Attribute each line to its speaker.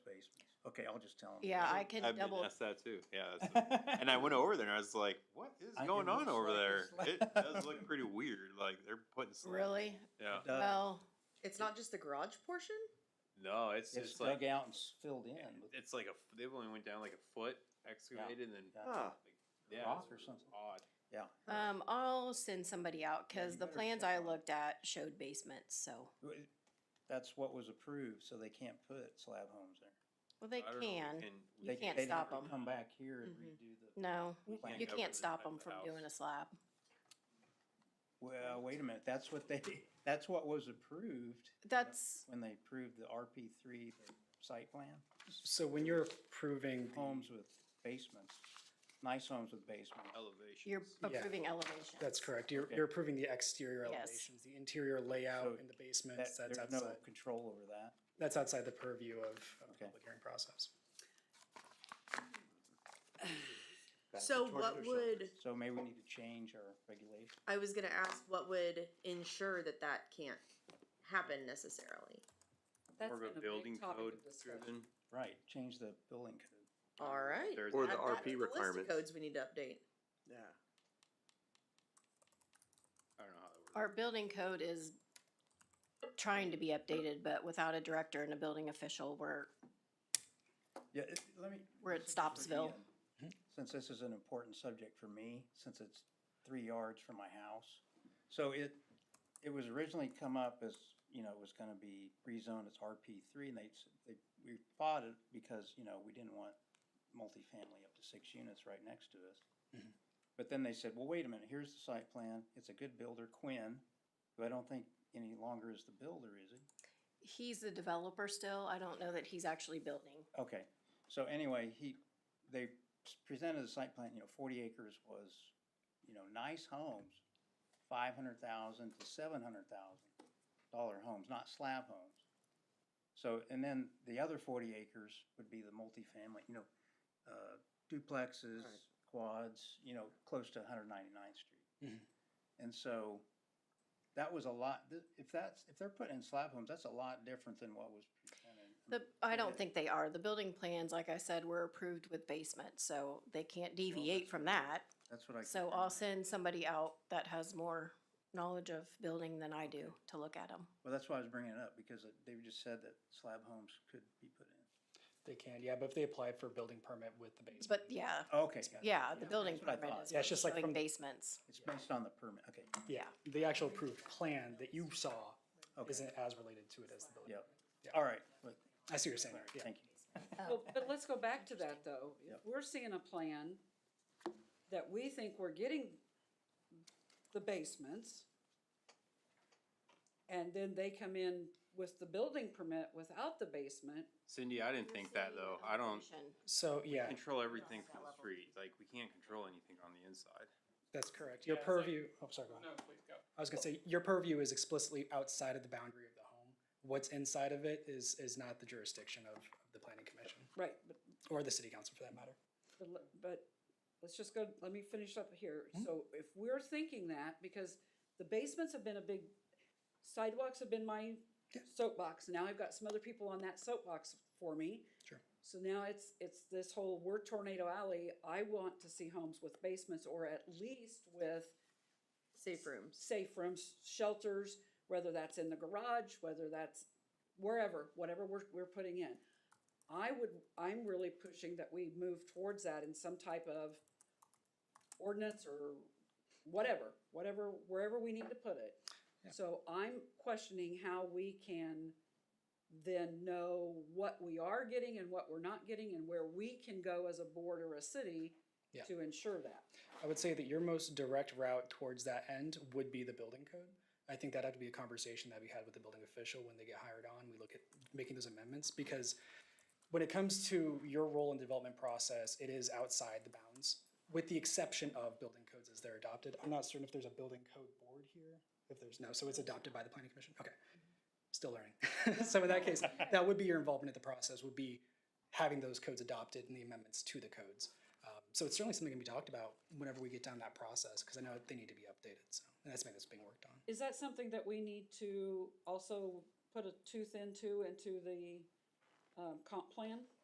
Speaker 1: Okay, I'll just tell him.
Speaker 2: Yeah, I can
Speaker 3: I've been
Speaker 2: double,
Speaker 3: asked that too, yeah. that's- And I went over there and I was like, what is
Speaker 1: I- it
Speaker 3: going on
Speaker 1: looks
Speaker 3: over
Speaker 1: like
Speaker 3: there?
Speaker 1: it's like-
Speaker 3: It does look pretty weird, like they're putting. sla-
Speaker 2: really?
Speaker 3: Yeah,
Speaker 1: Dug-
Speaker 2: Well,
Speaker 4: It's not just the garage portion?
Speaker 3: no, it's
Speaker 1: It's
Speaker 3: just like,
Speaker 1: dug out and s- filled in with
Speaker 3: it's like a, f- they've only went down like a foot excavated and then.
Speaker 1: Yeah.
Speaker 4: Huh.
Speaker 3: like, Yeah,
Speaker 1: rock
Speaker 3: it's
Speaker 1: or something.
Speaker 3: odd.
Speaker 2: um, I'll send somebody out,
Speaker 1: Yeah,
Speaker 2: cause
Speaker 1: you
Speaker 2: the
Speaker 1: better
Speaker 2: plans
Speaker 1: check
Speaker 2: I
Speaker 1: on it.
Speaker 2: looked at showed basements, so,
Speaker 1: Wh- That's what was approved, so they can't put slab homes there.
Speaker 2: well, they
Speaker 3: I don't know, we
Speaker 2: can.
Speaker 3: we
Speaker 1: They-
Speaker 3: can't
Speaker 2: can't
Speaker 1: they'd have
Speaker 2: stop
Speaker 1: to
Speaker 2: 'em.
Speaker 1: Come back here and
Speaker 2: Mhm.
Speaker 1: redo the.
Speaker 2: No,
Speaker 1: We
Speaker 3: can't
Speaker 2: you
Speaker 3: cover
Speaker 2: can't
Speaker 3: the
Speaker 2: stop
Speaker 3: type
Speaker 2: them
Speaker 3: of
Speaker 2: from doing a
Speaker 3: house.
Speaker 2: slab.
Speaker 1: Well, wait a minute, that's what they, that's what was approved
Speaker 2: That's,
Speaker 1: when they approved the RP three site plan.
Speaker 5: So when you're approving the-
Speaker 1: Homes with basements, nice homes with basements.
Speaker 3: Elevation.
Speaker 2: you're
Speaker 5: Yeah.
Speaker 2: approving elevation.
Speaker 5: that's correct, you're,
Speaker 1: Okay.
Speaker 5: you're approving the exterior
Speaker 2: Yes.
Speaker 5: elevations, the interior
Speaker 1: So
Speaker 5: layout in the
Speaker 1: That,
Speaker 5: basements, that's
Speaker 1: there's no
Speaker 5: outside,
Speaker 1: control over that.
Speaker 5: that's outside the purview of, of the
Speaker 1: Okay.
Speaker 5: public hearing process.
Speaker 1: Back to
Speaker 4: So
Speaker 1: torture
Speaker 4: what
Speaker 1: shelters.
Speaker 4: would-
Speaker 1: So maybe we need to change our regulation.
Speaker 4: I was gonna ask what would ensure that that can't happen necessarily.
Speaker 6: That's
Speaker 3: More
Speaker 6: been
Speaker 3: of
Speaker 6: a
Speaker 3: a
Speaker 6: big
Speaker 3: building
Speaker 6: topic of
Speaker 3: code
Speaker 6: discussion.
Speaker 3: driven.
Speaker 1: Right, change the building code.
Speaker 4: All right.
Speaker 3: There's
Speaker 7: Or the
Speaker 4: Add
Speaker 3: that.
Speaker 4: that
Speaker 7: RP
Speaker 4: to list of
Speaker 7: requirements.
Speaker 4: Codes we need to update.
Speaker 7: Yeah.
Speaker 3: I don't know how that works.
Speaker 2: Our building code is trying to be updated, but without a director and a building official, we're,
Speaker 1: Yeah, it- let me.
Speaker 2: We're at
Speaker 1: since this is the,
Speaker 2: Stopsville.
Speaker 1: uh, Since this is an important subject for me, since it's three yards from my house. So it, it was originally come up as, you know, it was gonna be rezoned as RP three and they, s- they, we fought it because, you know, we didn't want multifamily up to six units right next to us.
Speaker 5: Mhm.
Speaker 1: But then they said, well, wait a minute, here's the site plan. It's a good builder, Quinn, who I don't think any longer is the builder, is he?
Speaker 2: he's the developer still. I don't know that he's actually building.
Speaker 1: Okay, so anyway, he, they s- presented a site plan, you know, forty acres was, you know, nice homes, five hundred thousand to seven hundred thousand dollar homes, not slab homes. So, and then the other forty acres would be the multifamily, you know, uh, duplexes,
Speaker 4: Right.
Speaker 1: quads, you know, close to 199th Street.
Speaker 5: Mhm.
Speaker 1: And so that was a lot, th- if that's, if they're putting in slab homes, that's a lot different than what was presented.
Speaker 2: The, I
Speaker 1: Okay.
Speaker 2: don't think they are. The building plans, like I said, were approved with basement, so they can't deviate from that.
Speaker 1: That's what I.
Speaker 2: So
Speaker 1: confirmed.
Speaker 2: I'll send somebody out that has more knowledge of building than I do to look at them.
Speaker 1: Well, that's why I was bringing it up, because it- they just said that slab homes could be put in.
Speaker 5: They can, yeah, but if they applied for a building permit with the basement.
Speaker 2: But yeah,
Speaker 1: Okay,
Speaker 5: Basement.
Speaker 2: yeah, the building
Speaker 1: that's what I
Speaker 2: permit
Speaker 1: thought.
Speaker 2: is
Speaker 5: Yeah, it's just like
Speaker 2: showing
Speaker 5: from-
Speaker 2: basements.
Speaker 1: it's based on the permit, okay,
Speaker 5: Yeah, the actual approved plan that you saw
Speaker 1: okay,
Speaker 5: isn't as related to it as the building.
Speaker 1: yep. All right, but,
Speaker 5: I see what you're saying,
Speaker 1: all
Speaker 5: there,
Speaker 1: right,
Speaker 5: yeah.
Speaker 1: thank you.
Speaker 6: Well, but let's go back to that, though. If
Speaker 1: Yep.
Speaker 6: we're seeing a plan that we think we're getting the basements, and then they come in with the building permit without the basement,
Speaker 3: Cindy, I didn't think that though. I don't
Speaker 5: So, yeah,
Speaker 3: control everything from the
Speaker 2: level.
Speaker 3: street. Like, we can't control anything on the inside.
Speaker 5: that's correct. Your
Speaker 8: Yeah, it's like-
Speaker 5: purview, oh, sorry, go ahead.
Speaker 8: No, please go.
Speaker 5: I was gonna say, your purview is explicitly outside of the boundary of the home. What's inside of it is, is not the jurisdiction of the planning commission,
Speaker 6: right, but,
Speaker 5: or the city council for that matter.
Speaker 6: but le- but, let's just go, let me finish up here. So if we're thinking that, because the basements have been a big, sidewalks have been my soapbox, now I've got some other people on that soapbox for me.
Speaker 5: Sure.
Speaker 6: So now it's, it's this whole, we're Tornado Alley, I want to see homes with basements or at least with
Speaker 4: Safe rooms.
Speaker 6: safe rooms, shelters, whether that's in the garage, whether that's wherever, whatever we're, we're putting in. I would, I'm really pushing that we move towards that in some type of ordinance or whatever, whatever, wherever we need to put it. So I'm questioning how we can then know what we are getting and what we're not getting and where we can go as a board or a city
Speaker 5: Yeah.
Speaker 6: to ensure that.
Speaker 5: I would say that your most direct route towards that end would be the building code. I think that'd have to be a conversation that we had with the building official when they get hired on, we look at making those amendments, because when it comes to your role in development process, it is outside the bounds, with the exception of building codes as they're adopted. I'm not certain if there's a building code board here, if there's no, so it's adopted by the planning commission, okay. Still learning. So in that case, that would be your involvement in the process, would be having those codes adopted and the amendments to the codes. Um, So it's certainly something to be talked about whenever we get down that process, because I know they need to be updated, so, and that's something that's being worked on.
Speaker 6: Is that something that we need to also put a tooth into, into the, um, comp plan?